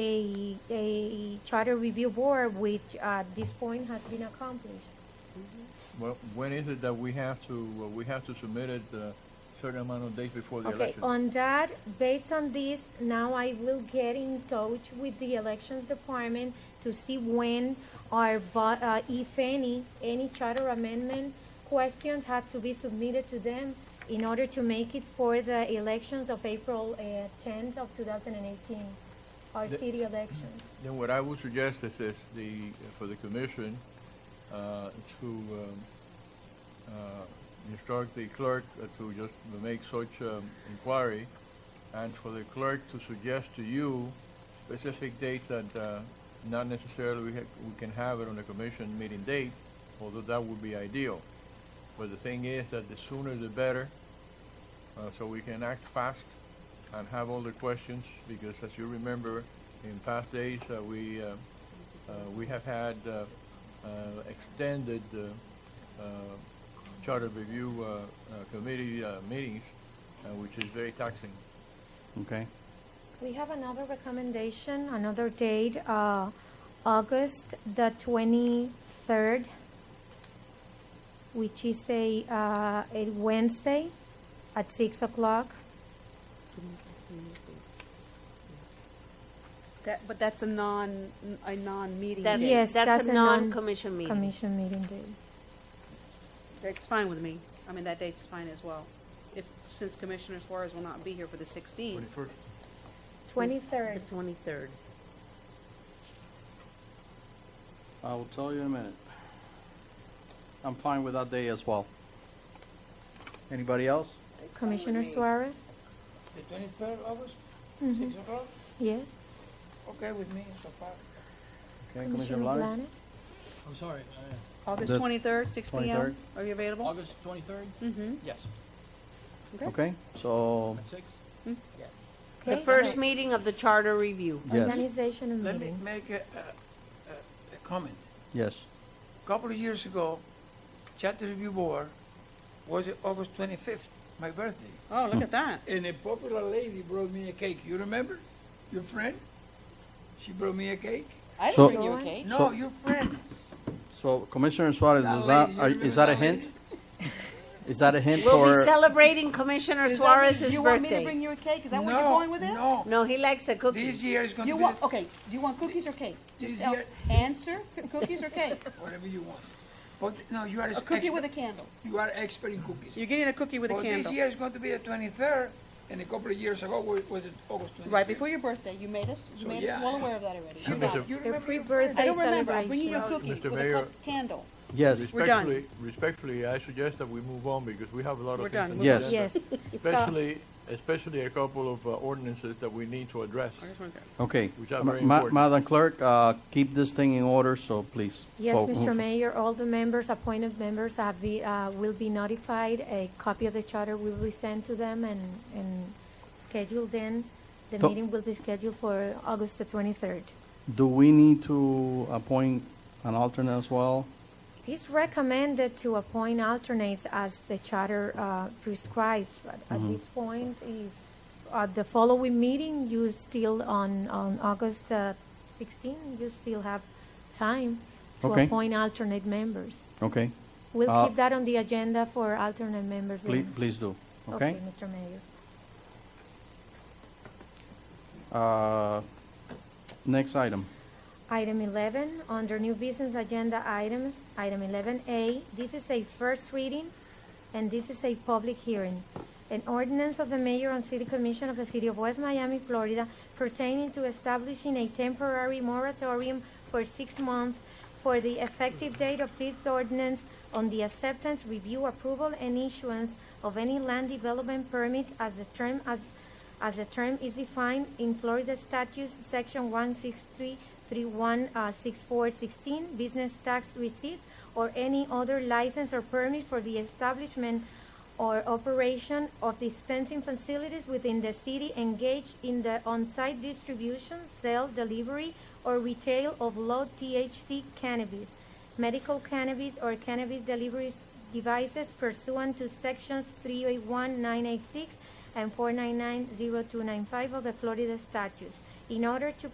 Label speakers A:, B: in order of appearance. A: a, a charter review board, which at this point has been accomplished.
B: Well, when is it that we have to, uh, we have to submit it a certain amount of days before the
A: Okay,
B: election?
A: on that, based on this, now I will get in touch with the elections department to see when our, vo- uh, if any, any charter amendment questions had to be submitted to them in order to make it for the elections of April uh, tenth of two thousand and eighteen, our
B: The-
A: city elections.
B: Then what I would suggest is this, the, for the commission, uh, to um, uh, instruct the clerk uh, to just make such um, inquiry, and for the clerk to suggest to you specific dates that uh, not necessarily we ha- we can have it on the commission meeting date, although that would be ideal. But the thing is that the sooner the better, uh, so we can act fast and have all the questions, because as you remember, in past days, uh, we, uh, uh, we have had uh, uh, extended uh, uh, charter review uh, uh, committee uh, meetings, uh, which is very taxing.
C: Okay.
A: We have another recommendation, another date, uh, August the twenty-third, which is a, uh, a Wednesday at six o'clock.
D: That, but that's a non, a non-meeting
A: That's-
D: date.
A: Yes, that's a non-
E: commission
A: Commission meeting day.
D: That's fine with me. I mean, that date's fine as well. If, since Commissioner Suarez will not be here for the 16th,
B: Twenty-first,
A: Twenty-third,
E: twenty-third.
C: I will tell you in a minute. I'm fine with that day as well. Anybody else?
A: Commissioner Suarez?
F: The twenty-third August,
A: Mhm.
F: six o'clock,
A: Yes?
F: okay with me so far.
C: Okay, Commissioner Blanes?
G: I'm sorry, uh,
D: August
C: The
D: 23rd, 6
C: 23rd.
D: PM? Are you available?
G: August 23rd?
D: Mm-hmm.
G: Yes.
C: Okay, so,
G: At 6?
E: The
A: Okay,
E: first
A: so
E: meeting of the charter review.
C: yes,
A: Organizational
F: Let me
A: meeting.
F: make a, a, a- a comment.
C: yes.
F: A Couple of years ago, Charter Review Board was it August twenty-fifth, my birthday.
D: Oh, look at that.
F: And a popular lady brought me a cake, you remember? Your friend? She brought me a cake?
D: I
C: So-
D: didn't bring you a cake.
F: No,
C: So-
F: your friend.
C: So Commissioner Suarez,
F: That
C: is that,
F: lady, you
C: are-
F: remember
C: is that a
F: that lady?
C: hint? Is that a hint
E: We'll be
C: for,
E: celebrating Commissioner
D: Is that what-
E: Suarez's
D: You want me to
E: birthday.
D: bring you a cake? Is that where
F: No,
D: you're going with this?
F: No,
E: No, he likes the
F: this
E: cookies.
F: year is gonna
D: You
F: be,
D: want,
F: the-
D: okay, do you want cookies or cake?
F: This
D: Just
F: is
D: tell-
F: your-
D: answer, c- cookies or cake?
F: whatever you want. But, no, you are.
D: oh. A cookie with a candle.
F: You are expert in cookies.
D: You're getting a cookie with a
F: Well, this
D: candle.
F: year is going to be the twenty-third, and a couple of years ago wa- was it August twenty-fifth.
D: Right before your birthday, you made us, you
F: So,
D: made
F: yeah.
D: us well aware of that already.
F: You
D: You're right.
F: remember- you
A: The
F: remember your friend?
D: I
A: pre-birthday
D: don't remember. I'm bringing you a
A: celebration.
D: cookie
B: Mr.
D: with a
B: Mayor.
D: cup- candle.
C: yes,
D: We're done.
B: Respectfully, respectfully, I suggest that we move on because we have a lot
D: We're
B: of
D: done.
B: things. on the
C: We're done.
B: agenda,
A: Yes,
B: Especially, especially a couple of uh, ordinances that we need to address.
D: I just want that.
C: okay.
B: Which are
C: Ma-
B: very
C: Ma-
B: important.
C: Madam Clerk, uh, keep this thing in order, so please.
A: yes,
C: fo-
A: Mr.
C: move-
A: Mayor, all the members, appointed members have be, uh, will be notified. A copy of the charter will be sent to them and, and scheduled then. The
C: To-
A: meeting will be scheduled for August the twenty-third.
C: Do we need to appoint an alternate as well?
A: It is recommended to appoint alternates as the charter uh, prescribes, but at this point, if, at the following meeting, you still, on, on August uh, 16, you still have time to
C: Okay.
A: appoint alternate members.
C: Okay,
A: We'll
C: Uh,
A: keep that on the agenda for alternate members.
C: please,
A: then.
C: please do, okay?
A: Mr. Mayor.
C: Uh, next item.
A: Item 11, under new business agenda items, item 11A, this is a first reading, and this is a public hearing. An ordinance of the mayor and city commission of the city of West Miami, Florida pertaining to establishing a temporary moratorium for six months for the effective date of this ordinance on the acceptance, review, approval, and issuance of any land development permits as the term, as, as the term is defined in Florida statutes, section one six three three one uh, six four sixteen, business tax receipts, or any other license or permit for the establishment or operation of dispensing facilities within the city engaged in the on-site distribution, sale, delivery, or retail of low THC cannabis, medical cannabis, or cannabis delivery devices pursuant to sections 381986 and 4990295 of the Florida statutes, in order to